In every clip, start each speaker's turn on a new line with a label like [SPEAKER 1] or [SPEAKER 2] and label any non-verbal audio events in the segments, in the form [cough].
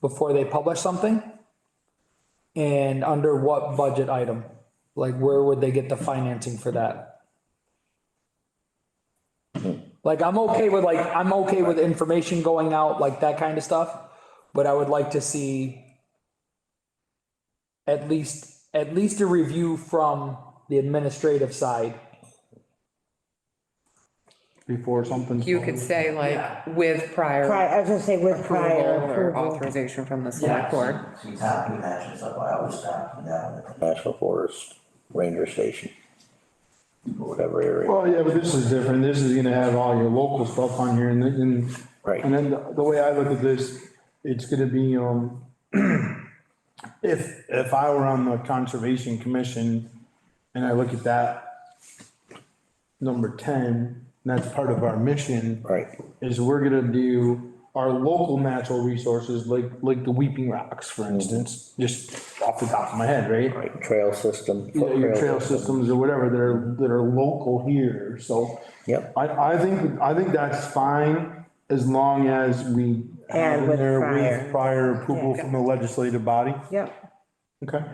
[SPEAKER 1] before they publish something? And under what budget item? Like, where would they get the financing for that? Like, I'm okay with like, I'm okay with information going out, like that kind of stuff, but I would like to see at least, at least a review from the administrative side.
[SPEAKER 2] before something.
[SPEAKER 3] You could say like with prior
[SPEAKER 4] Prior, I was gonna say with prior
[SPEAKER 3] approval or
[SPEAKER 4] approval.
[SPEAKER 3] authorization from the select board.
[SPEAKER 5] See, town conventions, that's why I always stop and down with
[SPEAKER 6] National Forest Ranger Station. or Whatever area,
[SPEAKER 2] Well, yeah, but this is different. This is gonna have all your local stuff on here and then, and-
[SPEAKER 6] Right.
[SPEAKER 2] and then the the way I look at this, it's gonna be, um, [clears throat] if, if I were on the Conservation Commission and I look at that number ten, and that's part of our mission.
[SPEAKER 6] right,
[SPEAKER 2] is we're gonna do our local natural resources, like, like the Weeping Rocks, for instance, just off the top of my head, right?
[SPEAKER 6] right, trail system.
[SPEAKER 2] You know, Your
[SPEAKER 6] foot
[SPEAKER 2] trail systems or whatever that are, that are local here, so.
[SPEAKER 6] Yep.
[SPEAKER 2] I, I think, I think that's fine, as long as we. have
[SPEAKER 4] And
[SPEAKER 2] in
[SPEAKER 4] with
[SPEAKER 2] there
[SPEAKER 4] prior.
[SPEAKER 2] Prior approval
[SPEAKER 4] Yeah.
[SPEAKER 2] from the legislative body.
[SPEAKER 4] Yep,
[SPEAKER 2] Okay.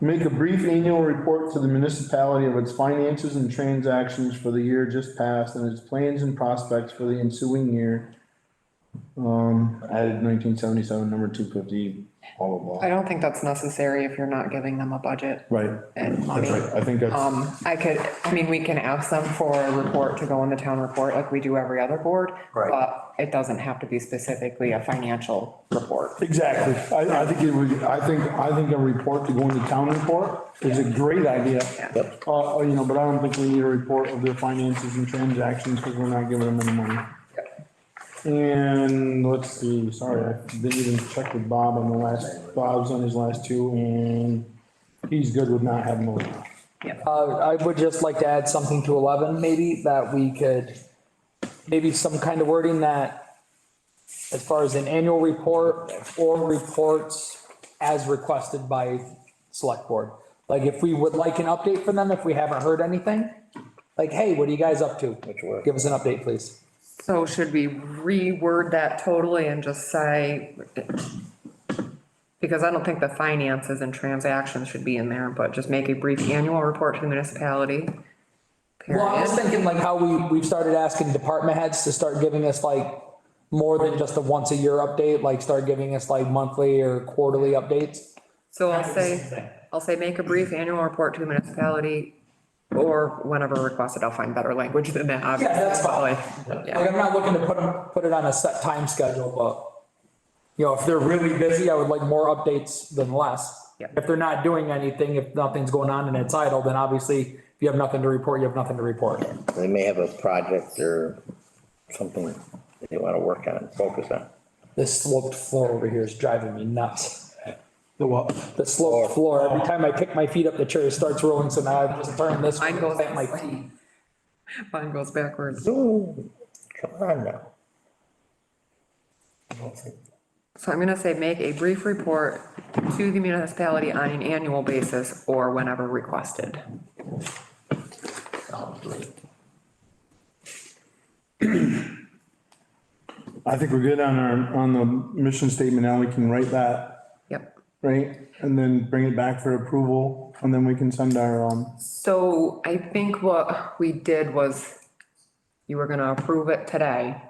[SPEAKER 2] Make a brief annual report to the municipality of its finances and transactions for the year just passed and its plans and prospects for the ensuing year. Um, added nineteen seventy-seven, number two fifty, blah, blah,
[SPEAKER 3] I
[SPEAKER 2] blah.
[SPEAKER 3] don't think that's necessary if you're not giving them a budget
[SPEAKER 2] Right,
[SPEAKER 3] and
[SPEAKER 2] that's
[SPEAKER 3] money.
[SPEAKER 2] right, I think that's,
[SPEAKER 3] Um, I could, I mean, we can ask them for a report to go in the town report like we do every other board.
[SPEAKER 5] Right.
[SPEAKER 3] But it doesn't have to be specifically a financial report.
[SPEAKER 2] exactly, I, I think it would, I think, I think a report to go into town report is a great idea.
[SPEAKER 6] Yep.
[SPEAKER 2] Uh, you know, but I don't think we need a report of their finances and transactions, because we're not giving them any money. And let's see, sorry, I didn't even check with Bob on the last, Bob's on his last two and he's good with not having a.
[SPEAKER 1] Uh, I would just like to add something to eleven, maybe, that we could, maybe some kind of wording that as far as an annual report or reports as requested by select board. Like if we would like an update from them, if we haven't heard anything, like, hey, what are you guys up to?
[SPEAKER 6] word?
[SPEAKER 1] Give us an update, please.
[SPEAKER 3] So should we reword that totally and just say? Because I don't think the finances and transactions should be in there, but just make a brief annual report to the municipality.
[SPEAKER 1] Well, I was
[SPEAKER 3] Period.
[SPEAKER 1] thinking like how we, we've started asking department heads to start giving us like more than just a once a year update, like start giving us like monthly or quarterly updates.
[SPEAKER 3] So I'll say, I'll say make a brief annual report to the municipality or whenever requested, I'll find better language than that, obviously.
[SPEAKER 1] that's fine.
[SPEAKER 3] Probably.
[SPEAKER 1] Like,
[SPEAKER 3] Yeah,
[SPEAKER 1] I'm not looking to put, 'em- put it on a set time schedule, but, you know, if they're really busy, I would like more updates than less.
[SPEAKER 3] Yep.
[SPEAKER 1] If they're not doing anything, if nothing's going on and it's idle, then obviously, if you have nothing to report, you have nothing to report.
[SPEAKER 6] They may have a project or something they wanna work on, focus on.
[SPEAKER 1] This sloped floor over here is driving me nuts.
[SPEAKER 2] The what? Oh.
[SPEAKER 1] The sloped floor, every time I pick my feet up, the chair starts rolling, so now I just turn this. way
[SPEAKER 3] Mine goes
[SPEAKER 1] and my
[SPEAKER 3] this way.
[SPEAKER 1] feet.
[SPEAKER 3] mine goes backwards.
[SPEAKER 6] Ooh, come on now.
[SPEAKER 3] So I'm gonna say make a brief report to the municipality on an annual basis or whenever requested.
[SPEAKER 5] it.
[SPEAKER 2] I think we're good on our, on the mission statement. Now we can write that,
[SPEAKER 3] Yep.
[SPEAKER 2] right? And then bring it back for approval and then we can send our, um,
[SPEAKER 3] So I think what we did was you were gonna approve it today.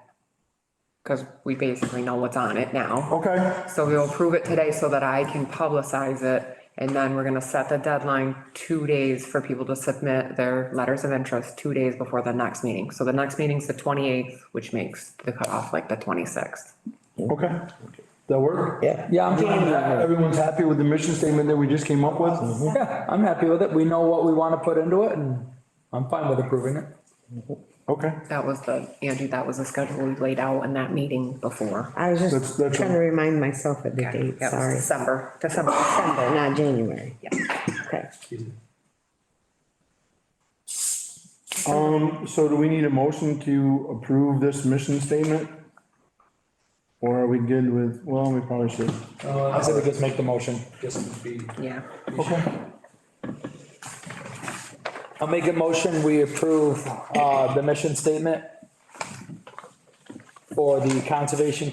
[SPEAKER 3] Cause we basically know what's on it now.
[SPEAKER 2] okay.
[SPEAKER 3] So we'll approve it today so that I can publicize it. And then we're gonna set the deadline two days for people to submit their letters of interest, two days before the next meeting. So the next meeting's the twenty-eighth, which makes the cutoff like the twenty-sixth.
[SPEAKER 2] Okay, that work?
[SPEAKER 6] Yeah,
[SPEAKER 1] Yeah, I'm, fine with that. [laughs]
[SPEAKER 2] Everyone's happy with the mission statement that we just came up with?
[SPEAKER 1] yeah, I'm happy with it. We know what we want to put into it and I'm fine with approving it.
[SPEAKER 2] Okay,
[SPEAKER 3] That was the, Angie, that was the schedule we laid out in that meeting before.
[SPEAKER 4] I was
[SPEAKER 2] That's-
[SPEAKER 4] just
[SPEAKER 2] that's
[SPEAKER 4] trying to
[SPEAKER 2] all.
[SPEAKER 4] remind myself of the date,
[SPEAKER 3] Yeah, it was
[SPEAKER 4] sorry.
[SPEAKER 3] December, December.
[SPEAKER 4] [coughs] December, not January. Yeah. Okay.
[SPEAKER 2] um, so do we need a motion to approve this mission statement? Or are we good with, well, we probably should.
[SPEAKER 1] Uh, I said we just make the motion, just to be.
[SPEAKER 3] Yeah.
[SPEAKER 1] I'll make a motion, we approve, uh, the mission statement for the Conservation